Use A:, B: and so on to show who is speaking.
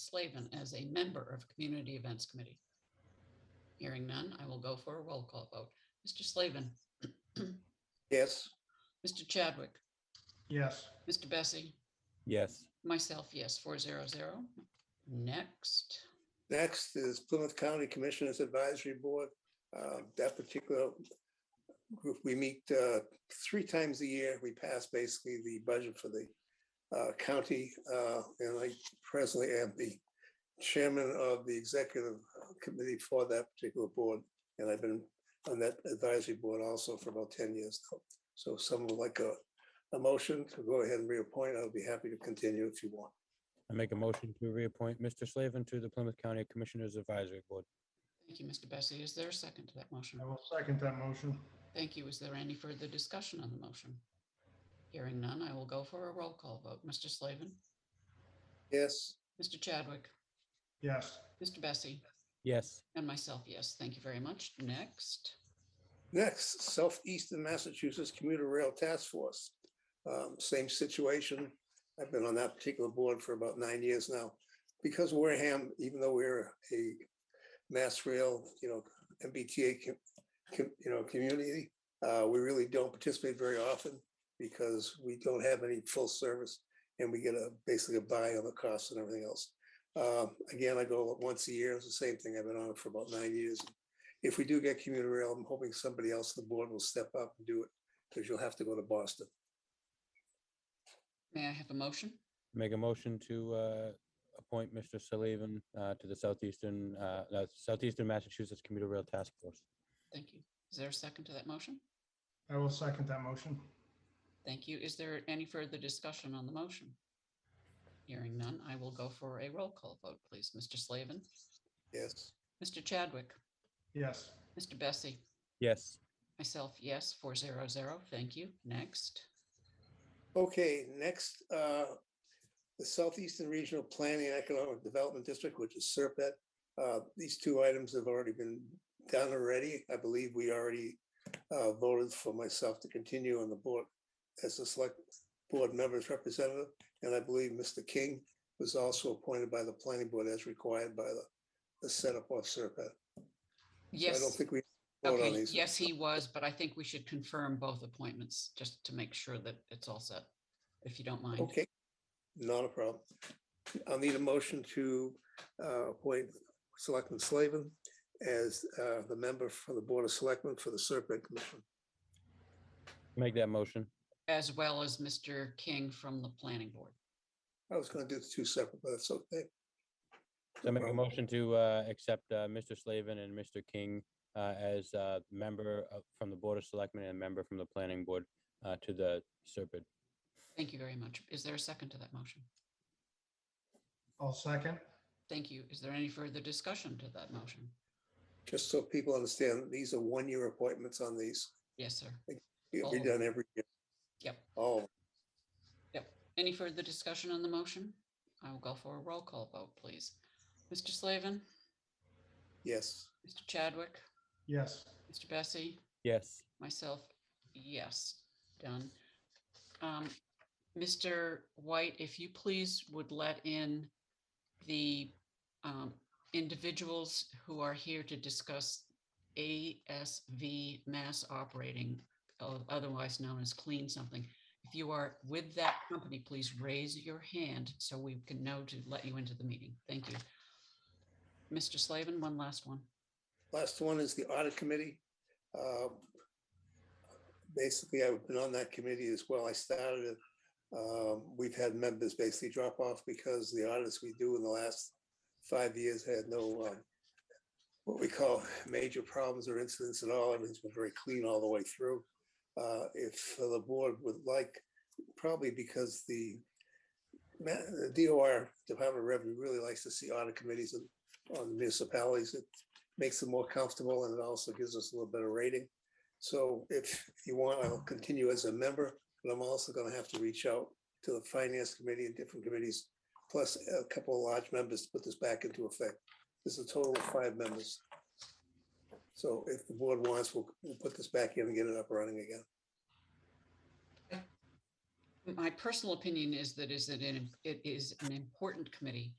A: Slavin as a member of Community Events Committee. Hearing none, I will go for a roll call vote. Mr. Slavin,
B: Yes.
A: Mr. Chadwick,
C: Yes.
A: Mr. Bessie,
D: yes,
A: myself, yes, four zero zero. Next,
B: Next is Plymouth County Commissioners Advisory Board. Uh, That particular group, we meet uh, three times a year. We pass basically the budget for the uh, county. uh, And I presently am the chairman of the executive committee for that particular board. And I've been on that advisory board also for about 10 years. now. So if someone would like a, a motion to go ahead and reappoint, I'll be happy to continue if you want.
D: I make a motion to reappoint Mr. Slavin to the Plymouth County Commissioners Advisory Board.
A: thank you, Mr. Bessie. Is there a second to that motion?
C: I will second that motion.
A: Thank you. Is there any further discussion on the motion? Hearing none, I will go for a roll call vote. Mr. Slavin,
B: Yes,
A: Mr. Chadwick,
C: Yes.
A: Mr. Bessie,
D: Yes,
A: and myself, yes. Thank you very much. Next,
B: Next, Southeastern Massachusetts Commuter Rail Task Force. Um, Same situation. I've been on that particular board for about nine years now. Because Wareham, even though we're a mass rail, you know, MBTA, com- com- you know, community, uh, we really don't participate very often because we don't have any full service and we get a, basically a buy on the costs and everything else. Um, Again, I go once a year. It's the same thing. I've been on it for about nine years if we do get commuter rail, I'm hoping somebody else on the board will step up and do it because you'll have to go to Boston.
A: may I have a motion?
D: make a motion to uh, appoint Mr. Slavin uh, to the Southeastern, uh, no, Southeastern Massachusetts Commuter Rail Task Force.
A: Thank you. Is there a second to that motion?
C: I will second that motion.
A: Thank you. Is there any further discussion on the motion? Hearing none, I will go for a roll call vote, please. Mr. Slavin,
B: Yes.
A: Mr. Chadwick,
C: Yes.
A: Mr. Bessie,
D: Yes,
A: myself, yes, four zero zero. Thank you. Next,
B: Okay, next, uh, the Southeastern Regional Planning and Economic Development District, which is SERPET. Uh, These two items have already been done already. I believe we already uh, voted for myself to continue on the board as a select board member's representative. And I believe Mr. King was also appointed by the planning board as required by the- the setup of SERPET. I don't
A: yes,
B: think we. vote on
A: okay,
B: these.
A: yes, he was, but I think we should confirm both appointments just to make sure that it's all set, if you don't mind.
B: Okay, not a problem. I'll need a motion to uh, appoint Selectman Slavin as uh, the member for the Board of Selectmen for the Serpent Commission.
D: make that motion.
A: As well as Mr. King from the planning board.
B: I was going to do the two separate, but that's okay.
D: So I make a
B: Well-
D: motion to uh, accept uh, Mr. Slavin and Mr. King uh, as a member of- from the Board of Selectmen and member from the Planning Board uh, to the Serpent.
A: Thank you very much. Is there a second to that motion?
C: I'll second.
A: Thank you. Is there any further discussion to that motion?
B: Just so people understand, these are one-year appointments on these.
A: Yes, sir.
B: It'll be
A: Oh.
B: done every year.
A: Yep.
B: Oh,
A: Any further discussion on the motion? I will go for a roll call vote, please. Mr. Slavin,
B: yes.
A: Mr. Chadwick,
C: Yes.
A: Mr. Bessie,
D: Yes,
A: myself, yes, done. Um, Mr. White, if you please would let in the um, individuals who are here to discuss ASV mass operating, o- otherwise known as clean something. If you are with that company, please raise your hand so we can know to let you into the meeting. Thank you. Mr. Slavin, one last one.
B: Last one is the audit committee. Um, Basically, I've been on that committee as well. I started it. Um, We've had members basically drop off because the audits we do in the last five years had no um, what we call major problems or incidents at all. Everything's been very clean all the way through. Uh, If the board would like, probably because the ma- the DOR, Department of Revenue, really likes to see audit committees on- on municipalities. It makes them more comfortable and it also gives us a little better rating. So if you want, I'll continue as a member, but I'm also going to have to reach out to the finance committee and different committees, plus a couple of large members to put this back into effect. There's a total of five members. So if the board wants, we'll, we'll put this back in and get it up and running again.
A: My personal opinion is that is that it it is an important committee